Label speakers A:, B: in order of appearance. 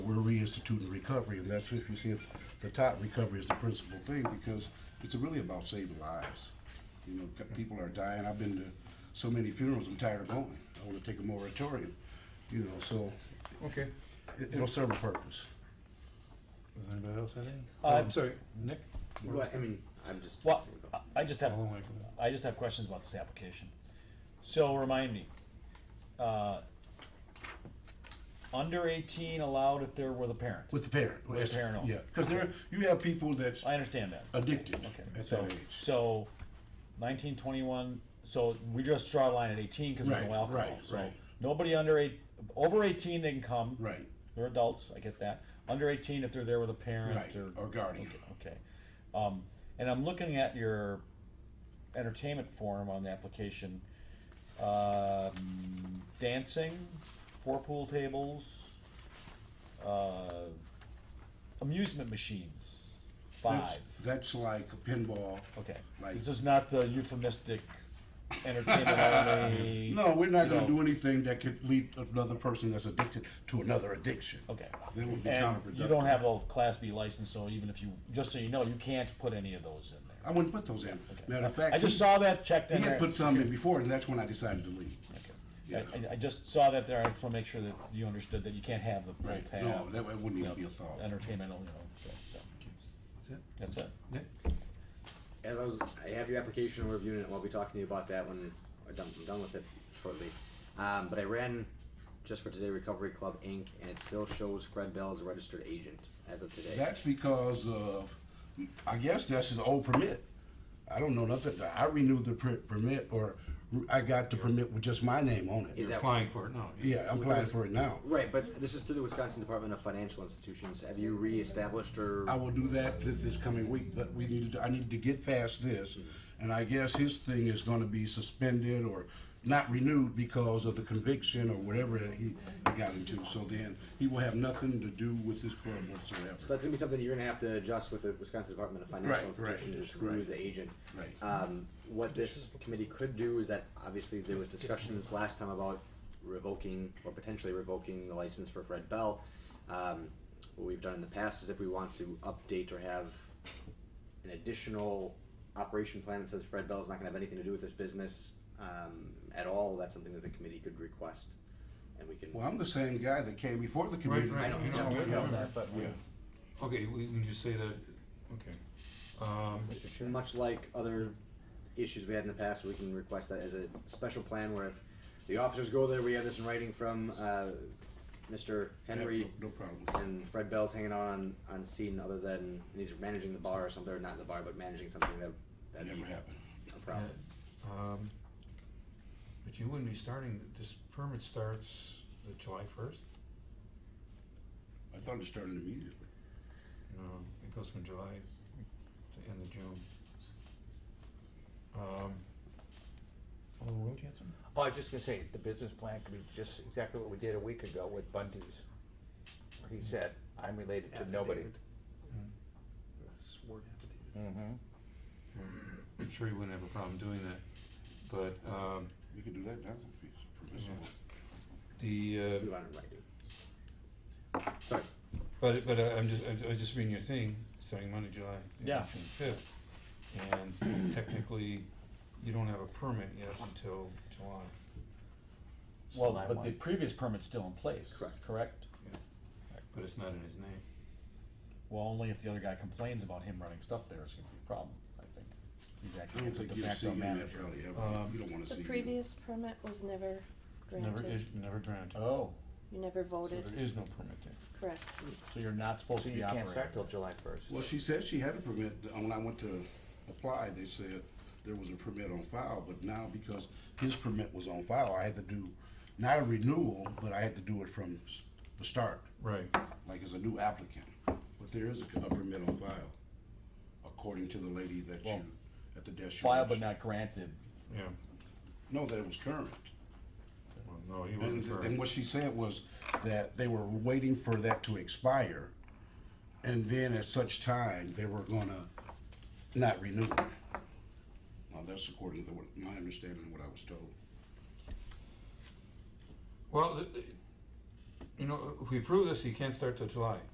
A: reinstituting recovery, and that's if you see it's the top recovery is the principal thing because it's really about saving lives. You know, c- people are dying. I've been to so many funerals. I'm tired of going. I want to take a moratorium. You know, so
B: Okay.
A: it, it'll serve a purpose.
C: Does anybody else have any? Oh,
D: I'm sorry,
C: Nick?
E: Well, I mean, I'm just.
D: well, I- I just have,
C: I'll wait for that.
D: I just have questions about this application. So remind me, uh, under eighteen allowed if they're with a parent?
A: With the parent.
D: With the parent only.
A: Yeah, because there, you have people that's
D: I understand that.
A: addicted
D: Okay.
A: at
D: so-
A: that age.
D: So nineteen, twenty-one, so we just draw a line at eighteen because there's no
A: Right,
D: alcohol.
A: right,
D: So
A: right.
D: Nobody under eight, over eighteen, they can come.
A: Right,
D: They're adults, I get that. Under eighteen, if they're there with a
A: right,
D: parent or
A: or guardian.
D: Okay. Um, and I'm looking at your entertainment form on the application. Um, dancing, four pool tables, uh, amusement machines,
A: That's-
D: five.
A: That's like a pinball.
D: Okay.
A: like-
D: This is not the euphemistic entertainment only.
A: No, we're not
D: No.
A: gonna do anything that could lead another person that's addicted to another addiction.
D: Okay.
A: That would be
D: And
A: counterproductive.
D: you don't have a class B license, so even if you, just so you know, you can't put any of those in there.
A: I wouldn't put those in.
D: Okay.
A: Matter of fact.
D: I just
A: he-
D: saw that, checked in
A: He
D: there.
A: had put some in before, and that's when I decided to leave.
D: Okay.
A: Yeah.
D: I- I, I just saw that there, I just wanna make sure that you understood that you can't have the full
A: Right, no,
D: tab,
A: that that wouldn't even be a thought.
D: entertainment only, you know, so, so,
C: That's it?
D: that's it.
C: Nick?
E: As I was, I have your application, we're reviewing it, and I'll be talking to you about that when I'm done, I'm done with it shortly. Um, but I ran just for today Recovery Club Inc., and it still shows Fred Bell as a registered agent as of today.
A: That's because of, I guess that's his old permit. I don't know nothing, I renewed the per- permit, or I got the permit with just my name on
E: Is
A: it.
E: that
C: Applying for it, no.
A: Yeah, I'm applying for it now.
E: right? But this is through the Wisconsin Department of Financial Institutions. Have you reestablished or?
A: I will do that th- this coming week, but we need, to- I need to get past this. And I guess his thing is gonna be suspended or not renewed because of the conviction or whatever he got into. So then, he will have nothing to do with this club
E: So
A: whatsoever.
E: that's gonna be something you're gonna have to adjust with the Wisconsin Department of
A: Right,
E: Financial
A: right,
E: Institutions, just who is the agent.
A: Right.
E: Um, what this committee could do is that, obviously, there was discussions last time about revoking or potentially revoking the license for Fred Bell. Um, what we've done in the past is if we want to update or have an additional operation plan that says Fred Bell's not gonna have anything to do with this business, um, at all, that's something that the committee could request, and we can.
A: Well, I'm the same guy that came before the
C: Right,
A: committee.
C: right.
E: I know,
C: you know,
E: yeah, we know
C: yeah.
E: that, but.
A: Yeah,
C: Okay, we can just say that, okay. Um,
E: It's much like other issues we had in the past, we can request that as a special plan where if the officers go there, we have this in writing from, uh, Mr. Henry
A: No problem.
E: and Fred Bell's hanging out on, on scene other than, and he's managing the bar or something, or not the bar, but managing something that, that'd be
A: Never happened.
E: a problem.
C: um, But you wouldn't be starting, this permit starts the July first?
A: I thought it started immediately.
C: No, it goes from July to end of June. Um, Alderman Rowe Jansen?
F: Well, I was just gonna say, the business plan could be just exactly what we did a week ago with Bundy's. where He said, I'm related to nobody. Mhm.
C: I'm sure you wouldn't have a problem doing that, but, um,
A: You can do that now if it's permissible.
C: the, uh,
E: We want it in writing. Sorry,
C: But, but I- I'm just, I'm- I was just reading your thing, starting Monday, July.
D: Yeah.
C: June fifth, and technically, you don't have a permit yet until July.
D: Well,
F: July
D: but the
F: one.
D: previous permit's still in place,
E: Correct.
D: correct?
C: But it's not in his name.
D: Well, only if the other guy complains about him running stuff there, it's gonna be a problem, I think. He's
A: I don't
D: actually
A: think
D: the
A: you'll
D: de
A: see
D: facto
A: him
D: manager.
A: that probably ever.
C: Um,
A: You don't wanna see
G: The
A: him.
G: previous permit was never
C: Never, is,
G: granted.
C: never granted.
D: Oh,
G: You never
C: So
G: voted,
C: there is no permit there.
G: correct.
D: so you're not supposed
F: So
D: to
F: you
D: be
F: can't start till
D: operating.
F: July first.
A: Well, she said she had a permit, when I went to apply, they said there was a permit on file, but now because his permit was on file, I had to do, not a renewal, but I had to do it from s- the start,
C: Right,
A: like as a new applicant. But there is a c- a permit on file, according to the lady that you, at the desk. you
D: Filed but
A: reached.
D: not granted,
C: yeah,
A: No, that it was current.
C: well, no, he wasn't
A: And,
C: for,
A: and what she said was that they were waiting for that to expire, and then at such time, they were gonna not renew it. Now, that's according to what, my understanding of what I was told.
C: well, th- th- you know, if we approve this, he can't start till July.